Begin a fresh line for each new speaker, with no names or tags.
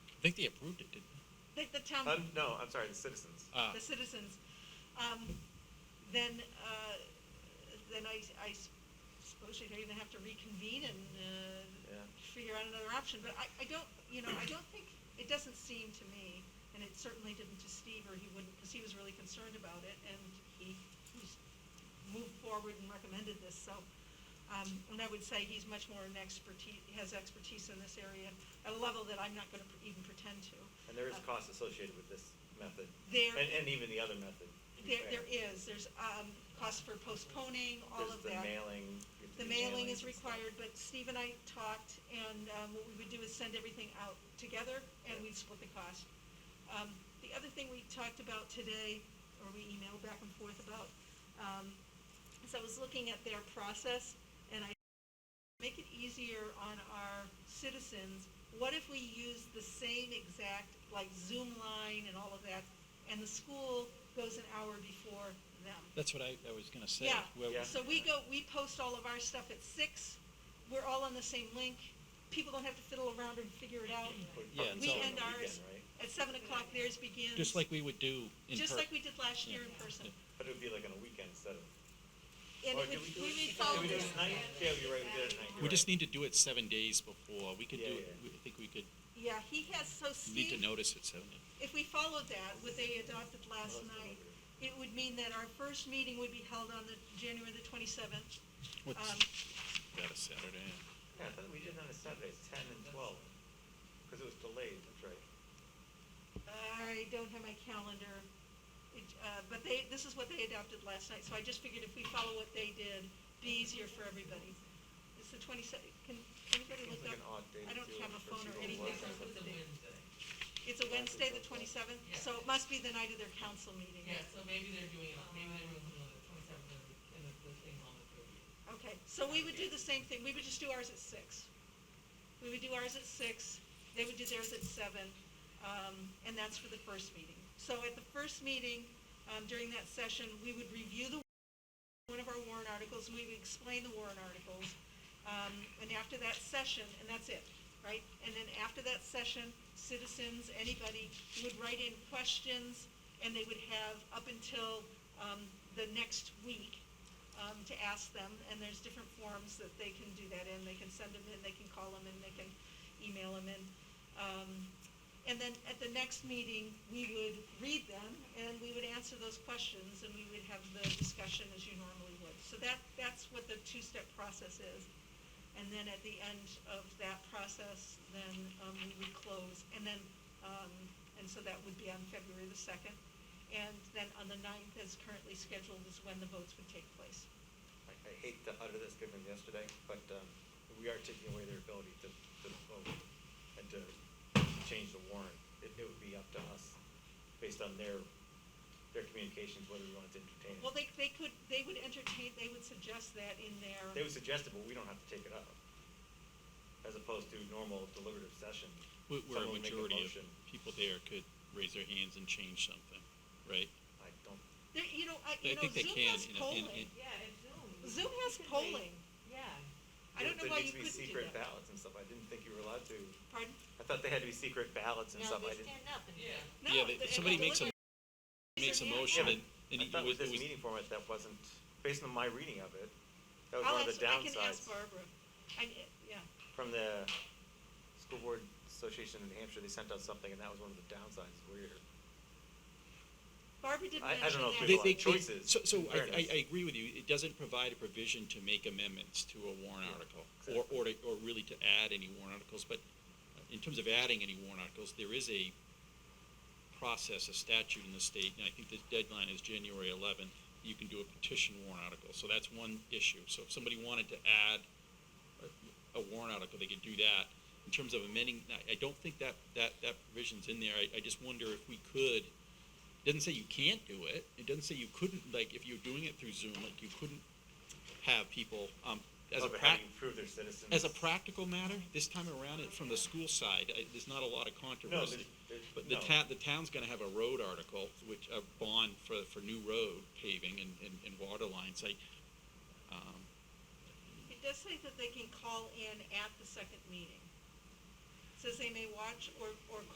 I think they approved it, didn't they?
the, the town,
Uh, no, I'm sorry, the citizens.
Ah,
the citizens, um, then, uh, then I, I s- suppose you're gonna have to reconvene and, uh,
Yeah.
figure out another option, but I, I don't, you know, I don't think, it doesn't seem to me, and it certainly didn't to Steve, or he wouldn't, because he was really concerned about it, and he, he's moved forward and recommended this, so, um, and I would say he's much more an expertise, has expertise in this area, at a level that I'm not gonna pr- even pretend to.
And there is
Uh,
cost associated with this method.
There-
And, and even the other method. to be
There, there
fair.
is, there's, um, cost for postponing, all
There's
of that.
the mailing. you have to
The
do
mailing is
mailings and stuff.
required, but Steve and I talked, and, um, what we would do is send everything out together, and we'd split the cost. Um, the other thing we talked about today, or we emailed back and forth about, um, is I was looking at their process, and I make it easier on our citizens, what if we use the same exact, like Zoom line and all of that, and the school goes an hour before them?
that's what I, I was gonna say.
Yeah.
Well,
Yeah.
So we go, we post all of our stuff at six, we're all on the same link, people don't have to fiddle around and figure it out.
Or- or
Yeah, it's
We
all-
on
end
the
ours
weekend, right?
at seven o'clock, theirs begins.
Just like we would do in
Just
per-
like we did last year in
Yeah.
person.
But it would be like on a weekend instead of,
And
or
it
Oh, did
would,
we do
we
it?
would
Did
follow
we do it
this,
at night? Yeah, you're right, we did it at night.
We
you're
just
right.
need to do it seven days before. We could do
Yeah,
it, we-
yeah.
I think we could,
yeah, he has, so
need to
Steve,
notice it seven days.
if we followed that, what they adopted last
Well, that's
night, it
deliberate.
would mean that our first meeting would be held on the, January the twenty-seventh.
What's,
Um,
that a Saturday?
Yeah, I thought we did it on a Saturday, it's ten and twelve, because it was delayed, that's right.
I don't have my calendar, It, uh, but they, this is what they adopted last night, so I just figured if we follow what they did, be easier for everybody. It's the twenty-second, can anybody
Seems
look
like
up?
an odd day
I
to
don't
do it
have a
for
phone or
people
anything on who
working.
It's
the
a
date.
Wednesday.
It's a Wednesday, the twenty-seventh,
Yeah.
so it must be the night of their council meeting.
Yeah, so maybe they're doing, it- maybe they're doing it on the twenty-seventh and the, and the- the thing on the thirtieth.
Okay, so we would do the same thing, we would just do ours at six. We would do ours at six, they would do theirs at seven, um, and that's for the first meeting. So at the first meeting, um, during that session, we would review the, one of our warrant articles, and we would explain the warrant articles. Um, and after that session, and that's it, right? And then after that session, citizens, anybody would write in questions, and they would have up until, um, the next week um, to ask them, and there's different forms that they can do that in, they can send them in, they can call them in, they can email them in. Um, and then at the next meeting, we would read them, and we would answer those questions, and we would have the discussion as you normally would. So that, that's what the two-step process is. And then at the end of that process, then, um, we would close, and then, um, and so that would be on February the second. And then on the ninth, as currently scheduled, is when the votes would take place.
I, I hate to utter this given yesterday, but, um, we are taking away their ability to, to vote and to change the warrant. It, it would be up to us, based on their, their communications, whether we wanted to entertain it.
Well, they, they could, they would entertain, they would suggest that in their.
They would suggest it, but we don't have to take it up. As opposed to normal deliberative session.
Where where a
someone would make
majority of
motion.
people there could raise their hands and change something, right?
I don't,
There, you know,
I
I, you know,
think they
Zoom
can
has
in a- in-
polling.
in-
Yeah, and Zoom.
Zoom has
Recently,
polling.
Yeah.
I don't know
there
why you
needs to be
couldn't do
secret
that.
ballots and stuff. I didn't think you were allowed to.
Pardon?
I thought they had to be secret ballots and
No,
stuff.
they
I didn't.
stand up and.
Yeah.
No,
Yeah, they-
the-
somebody
the
makes a,
deliberate-
makes a
Yeah,
motion
yeah.
and, and
I
it
thought
was,
with
it
this
was,
meeting format, that wasn't, based on my reading of it, that was
I'll
one of
ask-
the
I can ask
downsides
Barbara. I, yeah,
from the School Board Association in New Hampshire. They sent out something and that was one of the downsides. Weird.
Barbara did
I- I
mention
don't know
that.
if
they,
a lot
they,
of
they-
choices,
so, so
in
I, I,
fairness.
I agree with you, it doesn't provide a provision to make amendments to a warrant
Yeah,
article, or,
exactly.
or to, or really to add any warrant articles, but in terms of adding any warrant articles, there is a process, a statute in the state, and I think the deadline is January eleventh, you can do a petition warrant article, so that's one issue, so if somebody wanted to add a- a warrant article, they could do that. In terms of amending, I, I don't think that, that, that provision's in there, I, I just wonder if we could, it doesn't say you can't do it. It doesn't say you couldn't, like, if you're doing it through Zoom, like, you couldn't have people, um, as a
Over how
prac-
do you prove their citizens?
as a practical matter, this time around, it, from the school side, I, there's not a lot of controversy.
there's-
But the
no.
ta- the town's gonna have a road article, which, a bond for, for new road paving and, and, and water lines, like, um,
It does say that they can call in at the second meeting. It Says they may watch or, or